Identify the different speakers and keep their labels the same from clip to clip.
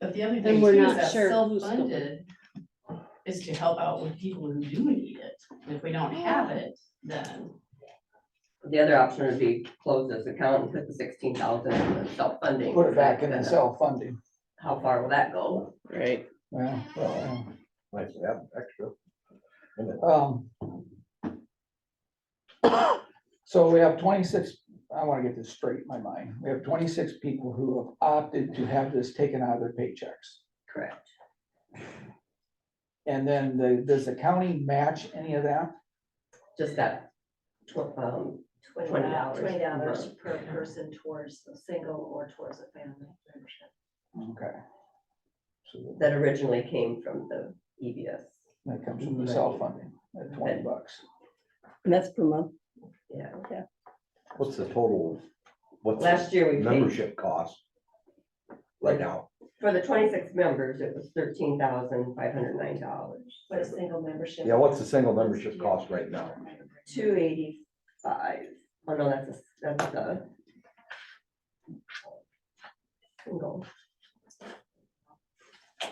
Speaker 1: But the other thing
Speaker 2: And
Speaker 1: too
Speaker 2: we're
Speaker 1: is
Speaker 2: not
Speaker 1: that
Speaker 2: sure who's covered.
Speaker 1: self-funded is to help out with people who do need it. And If we don't have it, then
Speaker 3: The other option would be close this account and put the sixteen thousand in the self-funding.
Speaker 4: Put it back in the
Speaker 3: Then
Speaker 4: self-funding.
Speaker 3: How far will that go?
Speaker 2: Right.
Speaker 4: Yeah, well,
Speaker 5: Nice to have extra.
Speaker 4: um. So we have twenty-six, I wanna get this straight in my mind. We have twenty-six people who have opted to have this taken out of their paychecks.
Speaker 3: Correct.
Speaker 4: And then the, does the county match any of that?
Speaker 3: Just that tw- um, Twenty dollars.
Speaker 6: Twenty dollars per person towards a single or towards a family membership.
Speaker 4: Okay,
Speaker 5: So
Speaker 3: that originally came from the E EBS.
Speaker 4: that comes from the self-funding, at twenty bucks.
Speaker 2: And that's per month.
Speaker 3: Yeah.
Speaker 5: What's the total? What's
Speaker 3: Last
Speaker 5: the
Speaker 3: year we paid,
Speaker 5: membership cost? Right now,
Speaker 3: for the twenty-six members, it was thirteen thousand five hundred nine dollars.
Speaker 6: What a single membership.
Speaker 5: yeah, what's the single membership cost right now?
Speaker 3: Two eighty-five. Oh no, that's, a- that's the. Single,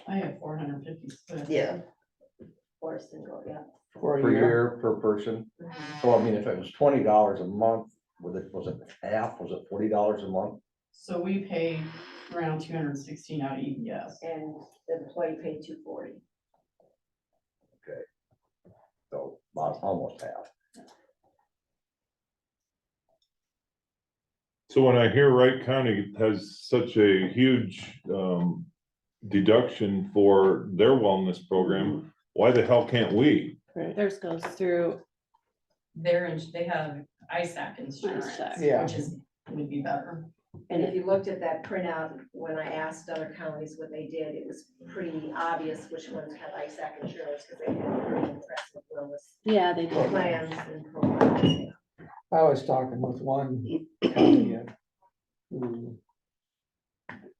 Speaker 1: I have four hundred and fifty.
Speaker 3: yeah,
Speaker 6: Or a single, yeah.
Speaker 4: For
Speaker 5: Per year, per person? So I mean, if it was twenty dollars a month, was it, was it half, was it forty dollars a month?
Speaker 1: So we pay around two hundred and sixteen out of E EBS.
Speaker 6: And the employee paid two forty.
Speaker 5: So about almost half.
Speaker 7: So when I hear Wright County has such a huge um deduction for their wellness program, why the hell can't we?
Speaker 2: Theirs goes through,
Speaker 1: They're, in- they have ISAC insurance,
Speaker 2: ISAC.
Speaker 4: Yeah.
Speaker 1: which is, would be better.
Speaker 6: And
Speaker 2: and
Speaker 6: if you looked at that printout, when I asked other counties what they did, it was pretty obvious which ones had ISAC insurance because they had pretty impressive wellness
Speaker 2: yeah, they do.
Speaker 6: plans and programs.
Speaker 4: I was talking with one company uh, who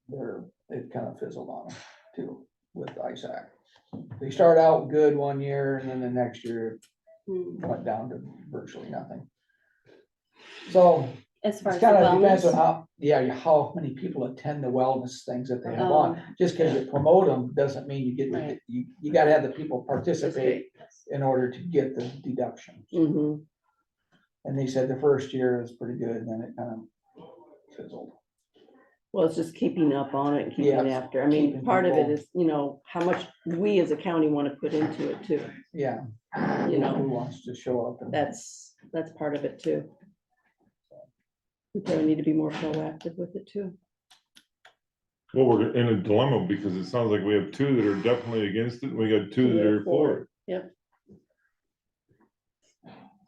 Speaker 4: they're, it kind of fizzled on them too with ISAC. They start out good one year and then the next year
Speaker 2: Hmm.
Speaker 4: it went down to virtually nothing. So
Speaker 2: As far
Speaker 4: it
Speaker 2: as
Speaker 4: kind of depends on
Speaker 2: the
Speaker 4: how, yeah, how many people attend the wellness things that they have
Speaker 2: wellness.
Speaker 4: on. Just because you promote them doesn't mean you get, the-
Speaker 2: Oh. Right.
Speaker 4: you, you gotta have the people participate in order to get the deduction.
Speaker 2: Mm-hmm.
Speaker 4: And they said the first year was pretty good, and then it kind of fizzled.
Speaker 8: Well, it's just keeping up on it and keeping
Speaker 4: Yes,
Speaker 8: after. I
Speaker 4: keeping
Speaker 8: mean, part of it
Speaker 4: people-
Speaker 8: is, you know, how much we as a county want to put into it too.
Speaker 4: Yeah.
Speaker 8: You know.
Speaker 4: Who wants to show up and,
Speaker 8: That's, that's part of it too. We probably need to be more proactive with it too.
Speaker 7: Well, we're in a dilemma because it sounds like we have two that are definitely against it, and we got two that are for it.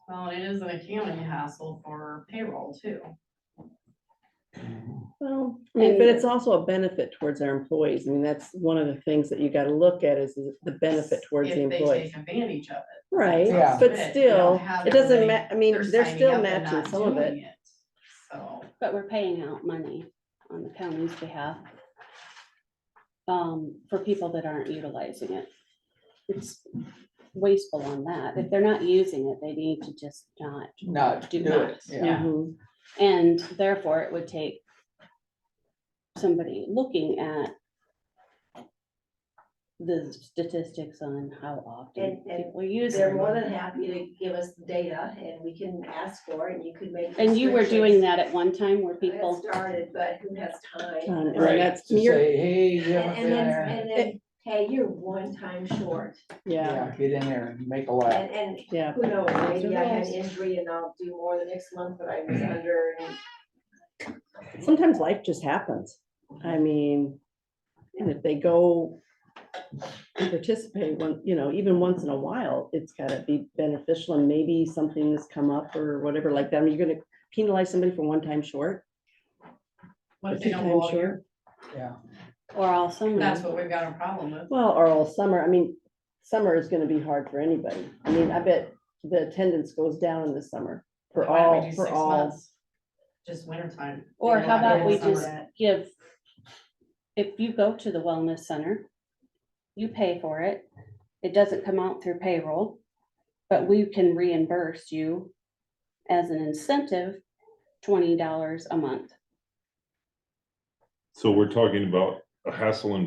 Speaker 1: Well, it is an accounting hassle for payroll too.
Speaker 8: Well, I mean, but it's also a benefit towards our employees. I mean, that's one of the things that you got to look at is the benefit towards the
Speaker 1: If they
Speaker 8: employees.
Speaker 1: take advantage of it.
Speaker 8: Right,
Speaker 4: Yeah.
Speaker 1: But
Speaker 8: but
Speaker 1: they don't
Speaker 8: still,
Speaker 1: have
Speaker 8: it
Speaker 1: the
Speaker 8: doesn't
Speaker 1: money.
Speaker 8: ma, I mean, they're
Speaker 1: signing
Speaker 8: still
Speaker 1: up and
Speaker 8: matching
Speaker 1: not
Speaker 8: some of it.
Speaker 1: doing So,
Speaker 2: But we're paying out money on the county's behalf. Um, for people that aren't utilizing it. It's wasteful on that. If they're not using it, they need to just not.
Speaker 4: not do
Speaker 2: Do
Speaker 4: it,
Speaker 2: not.
Speaker 4: yeah,
Speaker 8: Mhm.
Speaker 2: And therefore, it would take somebody looking at the statistics on how often
Speaker 6: And- and
Speaker 2: people use
Speaker 6: They're
Speaker 2: it.
Speaker 6: more than happy to give us data and we can ask for it and you could make.
Speaker 2: And you were doing
Speaker 6: restrictions.
Speaker 2: that at one time where
Speaker 6: I had
Speaker 2: people,
Speaker 6: started, but who has time?
Speaker 8: Um, and
Speaker 4: Right.
Speaker 8: that's-
Speaker 4: to
Speaker 8: you're-
Speaker 4: say, hey, you haven't
Speaker 6: And and
Speaker 4: been
Speaker 6: then,
Speaker 4: there.
Speaker 6: and then, hey, you're one time short,
Speaker 8: Yeah,
Speaker 4: Yeah, get in there and make a laugh.
Speaker 6: and, and
Speaker 8: yeah.
Speaker 6: who knows, maybe I had
Speaker 8: knows?
Speaker 6: an injury and I'll do more the next month, but I was under. and-
Speaker 8: sometimes life just happens.
Speaker 6: Mhm.
Speaker 8: I mean, and if they go and participate one, you know, even once in a while, it's gotta be beneficial and maybe something has come up or whatever like that. I mean, you're gonna penalize somebody for one time short.
Speaker 1: what if
Speaker 8: or
Speaker 1: they
Speaker 8: two
Speaker 1: don't
Speaker 8: times
Speaker 1: go all year?
Speaker 8: short.
Speaker 2: or all summer,
Speaker 1: That's
Speaker 8: Mm-hmm.
Speaker 1: what we've got a problem with.
Speaker 8: Well, or all summer. I mean, summer is gonna be hard for anybody. I mean, I bet the attendance goes down in the summer for
Speaker 1: Why don't we
Speaker 8: all,
Speaker 1: do
Speaker 8: for
Speaker 1: six
Speaker 8: all.
Speaker 1: months? Just winter time.
Speaker 2: or how about we
Speaker 1: Summer.
Speaker 2: just give, if you go to the wellness center, you pay for it, it doesn't come out through payroll, but we can reimburse you as an incentive, twenty dollars a month.
Speaker 7: So we're talking about a hassle and